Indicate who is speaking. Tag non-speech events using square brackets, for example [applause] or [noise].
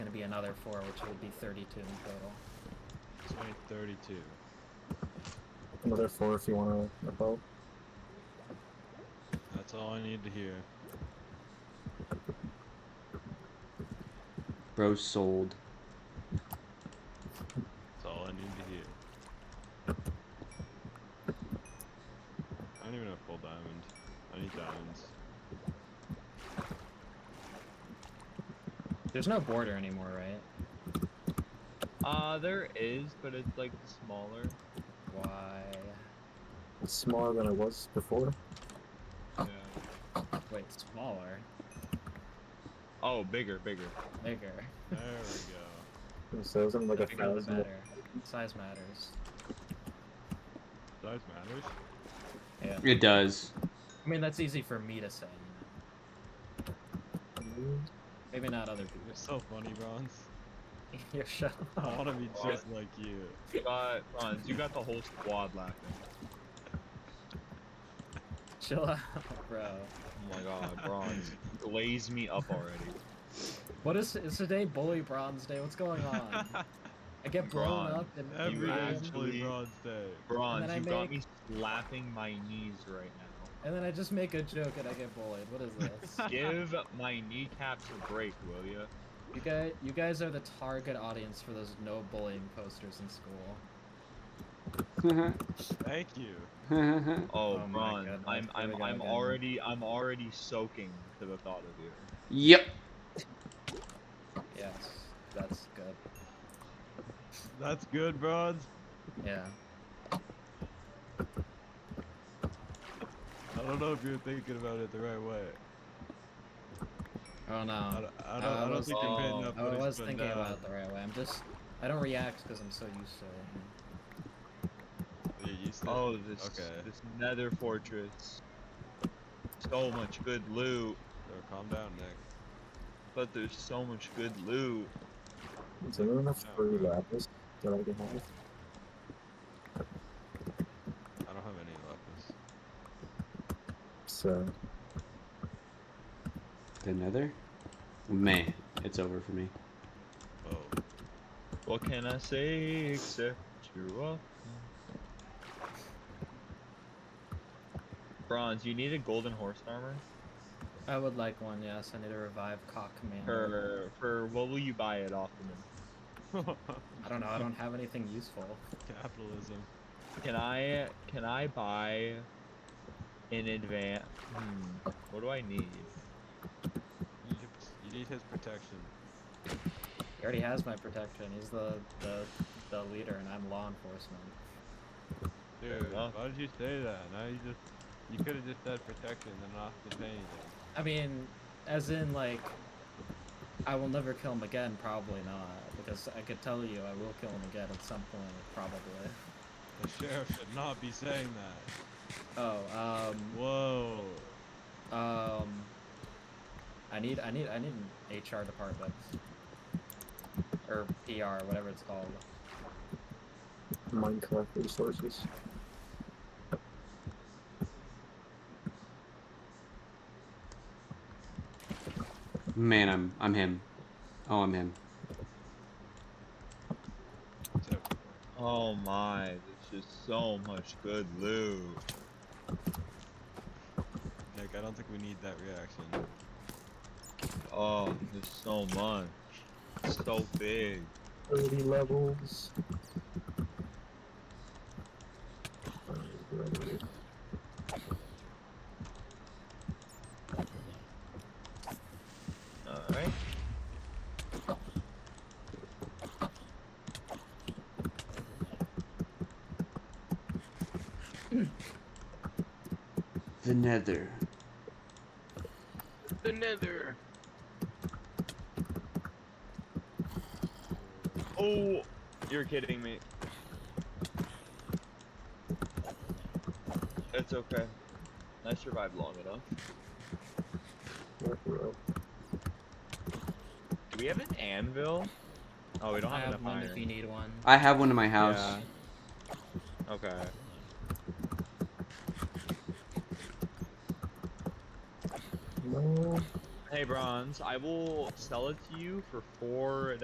Speaker 1: be another four, which would be 32 in total.
Speaker 2: It's only 32.
Speaker 3: Another four if you want to help.
Speaker 2: That's all I need to hear.
Speaker 4: Bro sold.
Speaker 2: That's all I need to hear. I don't even have full diamond. I need diamonds.
Speaker 1: There's no border anymore, right?
Speaker 5: Uh, there is, but it's like smaller.
Speaker 1: Why?
Speaker 3: It's smaller than it was before.
Speaker 5: Yeah.
Speaker 1: Wait, smaller,
Speaker 5: Oh, bigger, bigger.
Speaker 1: bigger.
Speaker 2: There we
Speaker 3: So isn't it like a
Speaker 1: Bigger the
Speaker 3: thousand.
Speaker 1: better. Size matters.
Speaker 2: go. Size matters.
Speaker 1: Yeah.
Speaker 4: It does.
Speaker 1: I mean, that's easy for me to say. you know. Maybe not other people. [laughs]
Speaker 2: You're so funny, Bronze.
Speaker 1: You're shut
Speaker 2: I want
Speaker 1: up.
Speaker 2: to be just like you.
Speaker 5: You got, Ron, you got the whole squad laughing.
Speaker 1: Chill out, bro.
Speaker 5: Oh my
Speaker 1: [laughs]
Speaker 5: god, Bronze, glaze me up already.
Speaker 1: What is is today Bully Bronze Day? What's going on?
Speaker 5: [laughs]
Speaker 1: I get blown
Speaker 5: Bronze.
Speaker 1: up and
Speaker 2: Every
Speaker 5: You
Speaker 2: day is
Speaker 1: and,
Speaker 2: Bully
Speaker 5: actually-
Speaker 2: Bronze Day.
Speaker 5: Bronze,
Speaker 1: I
Speaker 5: you got me
Speaker 1: make-
Speaker 5: slapping my knees right
Speaker 1: [laughs]
Speaker 5: now.
Speaker 1: and then I just make a joke and I get bullied. What is
Speaker 5: [laughs]
Speaker 1: this?
Speaker 5: Give my kneecaps a break, will you?
Speaker 1: you guys, you guys are the target audience for those no bullying posters in school.
Speaker 2: Thank you.
Speaker 5: Oh,
Speaker 1: Oh my
Speaker 5: Bronze,
Speaker 1: goodness,
Speaker 5: I'm,
Speaker 1: here we
Speaker 5: I'm,
Speaker 1: go
Speaker 5: I'm
Speaker 1: again.
Speaker 5: already, I'm already soaking to the thought of you.
Speaker 4: yep.
Speaker 1: Yes, that's good.
Speaker 2: That's good, Bronze.
Speaker 1: Yeah.
Speaker 2: I don't know if you're thinking about it the right way.
Speaker 1: Oh no.
Speaker 2: I don't, I don't,
Speaker 1: I
Speaker 2: I don't
Speaker 1: was-
Speaker 2: think you're paying
Speaker 5: oh,
Speaker 2: enough
Speaker 1: I
Speaker 2: notice,
Speaker 1: was
Speaker 2: but,
Speaker 1: thinking
Speaker 2: uh,
Speaker 1: about it the right way. I'm just, I don't react because I'm so used to it.
Speaker 2: You're used to it.
Speaker 5: Oh, this,
Speaker 2: Okay.
Speaker 5: this Nether fortress. So much good loot,
Speaker 2: Bro, "Oh, calm down, Nick.
Speaker 5: but there's so much good loot.
Speaker 3: Is there enough free lapis that I can have?
Speaker 2: I don't have any lapis.
Speaker 3: So
Speaker 4: The nether? Man, it's over for me.
Speaker 2: Oh,
Speaker 5: What can I say except you're welcome? Bronze, you need a golden horse armor?
Speaker 1: I would like one, yes. I need to revive Cock Commander.
Speaker 5: For for what will you buy it off of me?
Speaker 2: [laughs]
Speaker 1: I don't know. I don't have anything useful.
Speaker 2: capitalism.
Speaker 5: Can I can I buy in advance? Hmm, what do I need?
Speaker 2: You need- You need his protection.
Speaker 1: He already has my protection. He's the the, the leader, and I'm law enforcement.
Speaker 2: Dude,
Speaker 5: enough.
Speaker 2: why did you say that? Now you just you could have just said protection and not to say anything.
Speaker 1: I mean, as in like, I will never kill him again. Probably not, because I could tell you I will kill him again at some point. Probably.
Speaker 2: The sheriff should not be saying that.
Speaker 1: Oh,
Speaker 2: Whoa.
Speaker 1: um, um, I need, I need, I need an HR department or PR, whatever it's called.
Speaker 3: Minecraft resources.
Speaker 4: Man, I'm I'm him. Oh, I'm him.
Speaker 2: So,
Speaker 5: Oh my, there's just so much good loot.
Speaker 2: Nick, I don't think we need that reaction.
Speaker 5: Oh, there's so much. It's so big.
Speaker 3: Thirty levels.
Speaker 5: Alright.
Speaker 4: The nether.
Speaker 6: The nether.
Speaker 5: Oh, you're kidding me. It's okay. I survived long enough. Do we have an anvil? Oh, we don't
Speaker 1: I
Speaker 5: have,
Speaker 1: have
Speaker 5: enough
Speaker 1: one
Speaker 5: iron.
Speaker 1: if you need one.
Speaker 4: I have one in my house.
Speaker 5: Yeah. Okay.
Speaker 3: No.
Speaker 5: Hey, bronze. I will sell it to you for four